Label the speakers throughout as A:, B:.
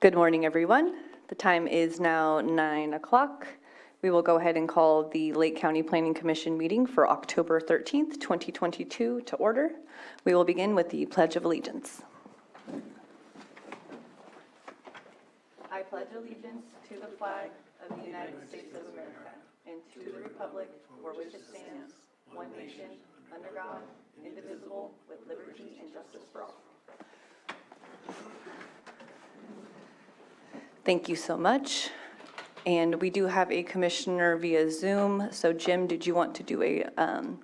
A: Good morning, everyone. The time is now 9 o'clock. We will go ahead and call the Lake County Planning Commission meeting for October 13th, 2022 to order. We will begin with the Pledge of Allegiance. I pledge allegiance to the flag of the United States of America and to the republic for which it stands, one nation, under God, indivisible, with liberty and justice for all. Thank you so much. And we do have a commissioner via Zoom. So Jim, did you want to do a um,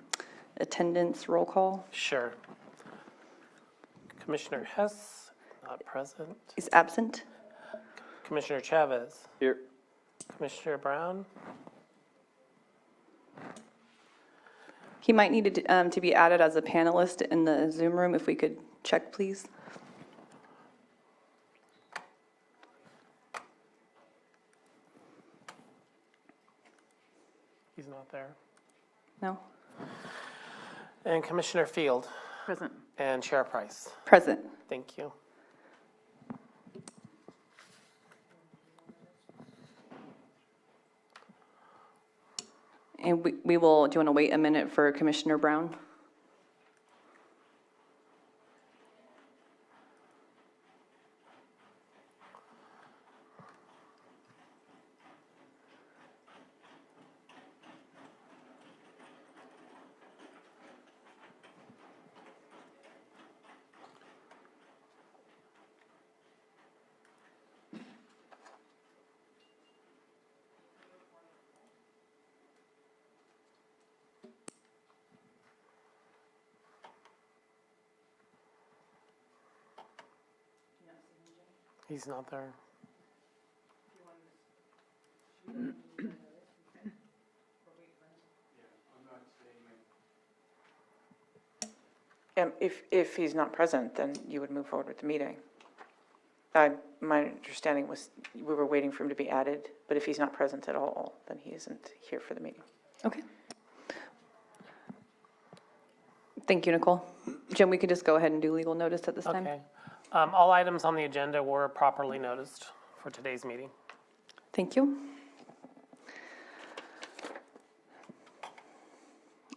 A: attendance roll call?
B: Sure. Commissioner Hess, not present.
A: He's absent.
B: Commissioner Chavez,
C: Here.
B: Commissioner Brown,
A: He might need to, um, to be added as a panelist in the Zoom room, if we could check, please.
B: he's not there.
A: No?
B: And Commissioner Field
A: Present.
B: and Chair Price.
A: Present.
B: Thank you.
A: And we we will, do you want to wait a minute for Commissioner Brown?
B: He's not there.
D: Um, If, if he's not present, then you would move forward with the meeting. I, my understanding was we were waiting for him to be added, but if he's not present at all, then he isn't here for the meeting.
A: Okay. Thank you, Nicole. Jim, we could just go ahead and do legal notice at this time?
B: Okay. Um, all items on the agenda were properly noticed for today's meeting.
A: Thank you.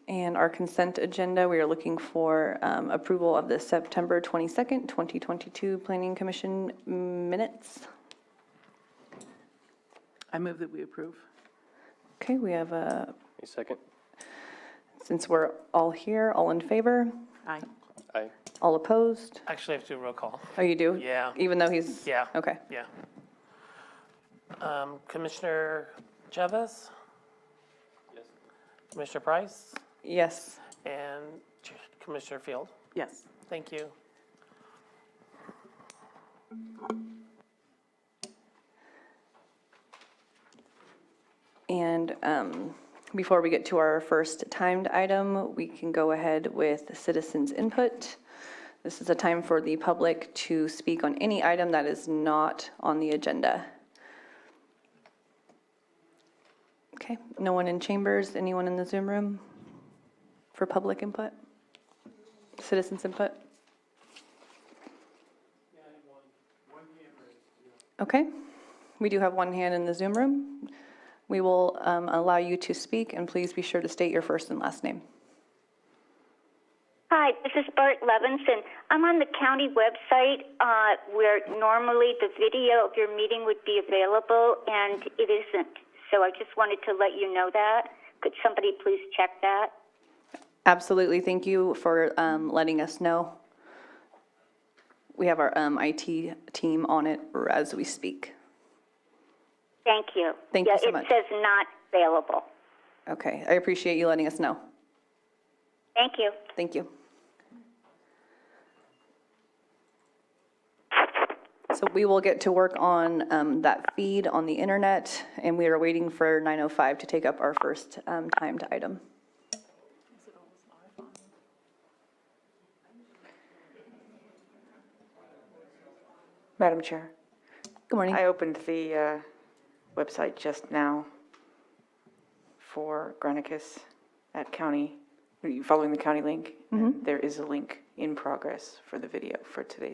A: And our consent agenda, we are looking for um, approval of the September 22nd, 2022 Planning Commission minutes.
E: I move that we approve.
A: Okay, we have a,
C: Any second?
A: since we're all here, all in favor,
E: Aye.
C: Aye.
A: all opposed?
B: Actually, I have to do a roll call.
A: Oh, you do?
B: Yeah.
A: Even though he's?
B: Yeah.
A: Okay.
B: Yeah. Um, Commissioner Chavez?
C: Yes.
B: Commissioner Price?
A: Yes.
B: And Ch- Commissioner Field?
E: Yes.
B: Thank you.
A: And um, before we get to our first timed item, we can go ahead with citizens' input. This is a time for the public to speak on any item that is not on the agenda. Okay, no one in chambers, anyone in the Zoom room for public input? Citizens' input? Okay, we do have one hand in the Zoom room. We will um, allow you to speak, and please be sure to state your first and last name.
F: Hi, this is Bart Levinson. I'm on the county website uh, where normally the video of your meeting would be available, and it isn't. So I just wanted to let you know that. Could somebody please check that?
A: Absolutely, thank you for um, letting us know. We have our um, IT team on it as we speak.
F: Thank you.
A: Thank you
F: Yeah,
A: so much.
F: It says not available.
A: Okay, I appreciate you letting us know.
F: Thank you.
A: Thank you. So we will get to work on um, that feed on the internet, and we are waiting for 9:05 to take up our first um, timed item.
D: Madam Chair,
A: Good morning.
D: I opened the uh, website just now for Granicus at county, following the county link. There is a link in progress for the video for today's